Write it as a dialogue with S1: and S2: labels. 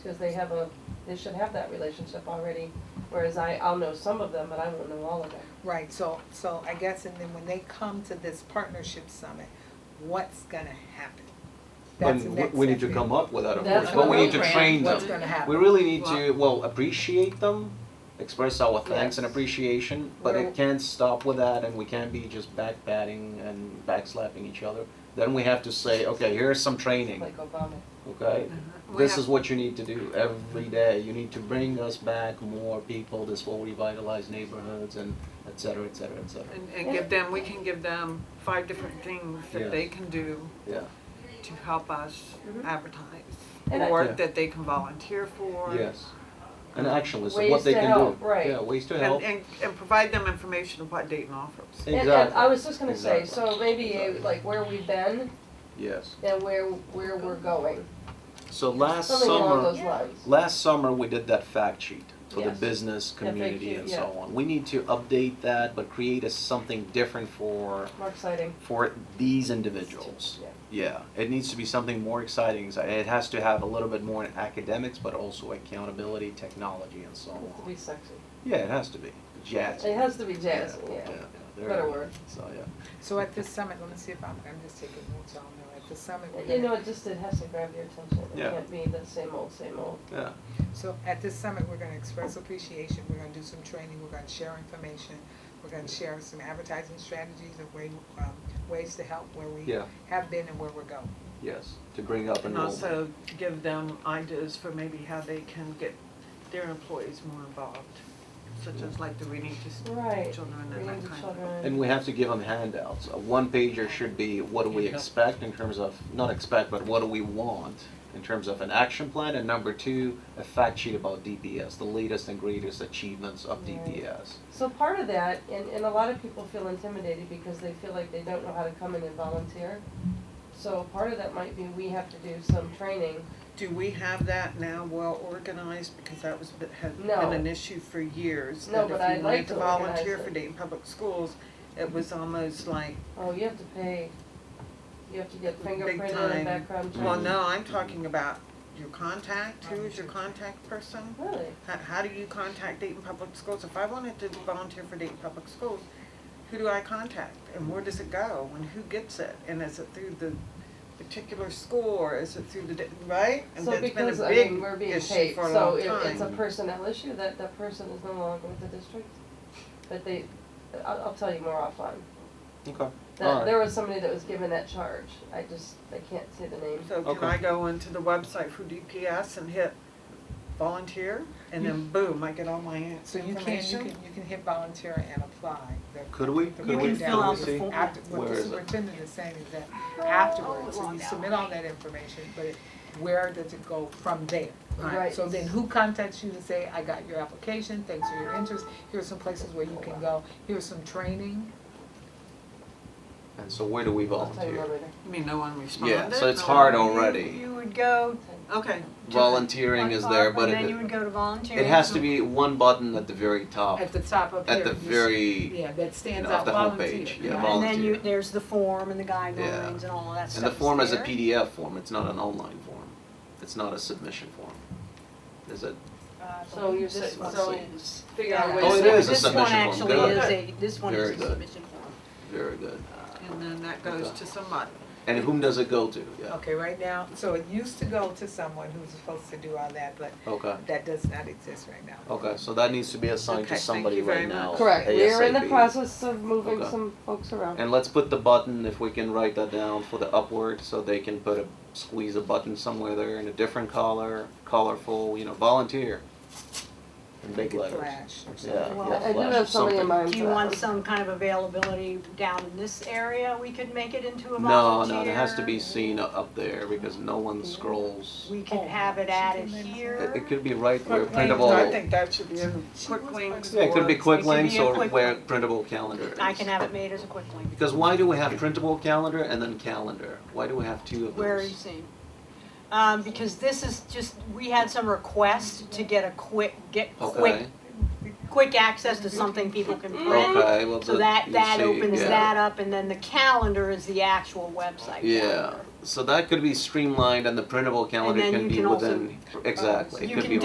S1: Because they have a, they should have that relationship already, whereas I, I'll know some of them, but I won't know all of them.
S2: Right, so, so I guess, and then when they come to this partnership summit, what's gonna happen? That's the
S3: And we-
S2: next
S3: we need to
S2: step.
S3: come up with that, of
S1: That's
S3: course, but we
S1: what
S3: need to
S1: we ran.
S3: train
S2: What's
S3: them.
S2: gonna happen?
S3: We really need to, well, appreciate them, express our thanks and
S1: Yes.
S3: appreciation, but
S2: We're-
S3: it can't stop with that and we can't be just back patting and back slapping each other. Then we have to say, okay, here's some training,
S1: Like Obama.
S3: okay?
S4: We
S3: This
S4: have-
S3: is what you need to do every day. You need to bring us back more people. This will revitalize neighborhoods and et cetera, et cetera, et cetera.
S4: And, and give them, we can give them five different things that they can do
S3: Yeah,
S4: to help us advertise.
S1: Mm-hmm. And I-
S4: Or
S3: Yeah.
S4: that they can volunteer for.
S3: yes. And action is
S1: Ways
S3: what they
S1: to
S3: can do.
S1: help, right.
S3: Yeah, ways to help.
S4: And, and, and provide them information of what Dayton offers.
S1: And- And
S3: Exactly.
S1: I was just gonna say,
S3: Exactly.
S1: so maybe uh,
S3: Exactly.
S1: like where we've been
S3: Yes.
S1: and where, where we're going,
S3: So last
S1: something along
S3: summer,
S1: those lines.
S3: last summer, we did that fact sheet for the
S1: Yes.
S3: business, community
S1: FAQ,
S3: and
S1: yeah.
S3: so on. We need to update that, but create a something different for,
S1: More exciting.
S3: for these individuals.
S1: Yeah.
S3: Yeah, it needs to be something more exciting. It has to have a little bit more in academics, but also accountability, technology and so
S1: It has to
S3: on.
S1: be sexy.
S3: Yeah, it has to be. Jazz.
S1: It has to be jazz, yeah.
S3: there
S1: Better
S3: it is.
S1: word.
S3: So, yeah.
S2: So at this summit, let me see if I'm, I'm just taking notes, y'all know, at the summit, we're
S1: You know,
S2: gonna,
S1: it just, it has to grab your attention. It
S3: Yeah.
S1: can't be the same old, same old.
S3: Yeah,
S2: so at this summit, we're gonna express appreciation, we're gonna do some training, we're gonna share information, we're gonna share some advertising strategies of way, um, ways to help where we
S3: Yeah.
S2: have been and where we're going.
S3: yes, to bring up
S4: And
S3: enrollment.
S4: also give them ideas for maybe how they can get their employees more involved, such as like the reading to s-
S1: Right.
S4: children and
S1: Reading
S4: that
S1: to
S4: kind of.
S1: children.
S3: And we have to give them handouts. A one pager should be what do we expect in terms of, not expect, but what do we want in terms of an action plan? And number two, a fact sheet about DPS, the latest and greatest achievements of
S1: Right.
S3: DPS.
S1: So part of that, and, and a lot of people feel intimidated because they feel like they don't know how to come in and volunteer. So part of that might be we have to do some training.
S4: Do we have that now well organized, because that was, bit- had
S1: No.
S4: been an issue for years,
S1: No,
S4: that
S1: but
S4: if
S1: I'd like
S4: you wanted to
S1: to organize
S4: volunteer
S1: it.
S4: for Dayton Public Schools, it was almost like,
S1: Oh, you have to pay, you have to get
S4: Big
S1: fingerprinted and
S4: time.
S1: background checked.
S4: well,
S3: Mhm.
S4: no, I'm talking about your contact, who is your contact person?
S1: Really?
S4: How, how do you contact Dayton Public Schools? If I wanted to volunteer for Dayton Public Schools, who do I contact, and where does it go, and who gets it, and is it through the particular school, or is it through the, di- right? And
S1: So
S4: that's been
S1: because,
S4: a
S1: I
S4: big
S1: mean, we're being
S4: issue
S1: paid,
S4: for a
S1: so
S4: long
S1: if it's a
S4: time.
S1: personnel issue, that, that person is no longer with the district. But they, I'll, I'll tell you more offline.
S3: Okay.
S1: That, there was somebody that was given that charge, I just, I can't say the name.
S4: So can
S3: Okay.
S4: I go into the website for DPS and hit volunteer, and then boom, I get all my in-
S2: So you can, you can,
S4: information?
S2: you can hit volunteer and apply. The-
S3: Could we,
S2: the
S3: could
S5: You
S3: we,
S5: can
S2: breakdown
S5: fill out
S3: could we
S5: the
S3: see?
S5: form.
S2: After, what
S3: Where
S2: the
S3: is it?
S2: superintendent is saying is that afterwards, so
S5: Oh,
S2: you
S5: well,
S2: submit all that information, but it- where does it go from there?
S4: Right.
S2: So then who contacts you to say, I got your application, thanks for your interest, here's some places where you can go, here's some training?
S3: And so where do we
S1: I'll tell you more
S3: volunteer?
S1: later.
S4: You mean no one responded?
S3: Yeah, so it's
S4: No
S3: hard
S4: one-
S3: already.
S5: You would go
S4: Okay,
S5: to.
S3: Volunteering is there, but
S5: And then you would
S3: it,
S5: go to volunteering.
S3: it has to be one button at the very top,
S2: At the top up here.
S3: at the
S2: you s-
S3: very,
S2: Yeah, that stands
S3: you know,
S2: out,
S3: of the
S2: volunteer.
S3: homepage, yeah,
S2: right?
S5: And then you,
S3: volunteer.
S5: there's the form and the guidelines and all of that stuff.
S3: and the form is a
S5: there.
S3: PDF form. It's not an online form. It's not a submission form. Is it?
S5: Uh,
S1: So you're
S5: this
S1: saying-
S5: one
S3: so
S5: is-
S4: figure out
S5: yeah,
S4: ways.
S3: Oh, it
S5: this-
S3: is a submission form.
S5: This one
S3: Good.
S5: actually is a, this one
S3: Very
S5: is a
S3: good.
S5: submission form.
S3: Very good.
S4: and then that goes to somebody.
S3: And whom does it go to? Yeah.
S2: Okay, right now, so it used to go to someone who's supposed to do all that, but
S3: Okay.
S2: that does not exist right now.
S3: Okay, so that needs to be assigned
S4: Okay,
S3: to
S4: thank
S3: somebody
S4: you very
S3: right now.
S4: much.
S1: Correct, we are in the
S3: ASAP.
S1: process of moving
S3: Okay.
S1: some folks around.
S3: And let's put the button, if we can write that down for the upward, so they can put a, squeeze a button somewhere there in a different color, colorful, you know, volunteer. In big
S2: Like a
S3: letters.
S2: flash or
S3: Yeah,
S2: something.
S5: Well,
S3: yeah,
S5: I
S1: I do
S3: flash,
S1: have somebody in
S3: something.
S1: mind
S5: Do you want some kind of availability down in this area? We could make it into a
S3: No,
S5: volunteer.
S3: no, it has to be seen u- up there, because no one scrolls.
S5: We could have it added
S3: It, it
S5: here.
S3: could be right where
S4: Quick links,
S3: printable,
S4: I
S3: yeah,
S4: think that should be in quick links.
S3: it could be
S4: or-
S3: quick
S5: It could be
S3: links
S5: a
S3: or
S5: quick
S3: where
S5: link.
S3: printable calendar is.
S5: I can have it made as a quick link.
S3: Because why do we have printable calendar and then calendar? Why do we have two of those?
S5: Where are you seeing? Um, because this is just, we had some requests to get a quick, get
S3: Okay.
S5: quick quick access to something people can
S3: Mm.
S5: print.
S3: Okay, well,
S5: mm, So
S3: the-
S5: that,
S3: you
S5: that
S3: see,
S5: opens
S3: yeah.
S5: that up, and then the calendar is the actual website
S3: Yeah,
S5: calendar.
S3: so that could be streamlined and the printable calendar
S5: then
S3: can
S5: you
S3: be
S5: can also- uh,
S3: within, exactly,
S5: You
S3: it could
S5: can
S3: be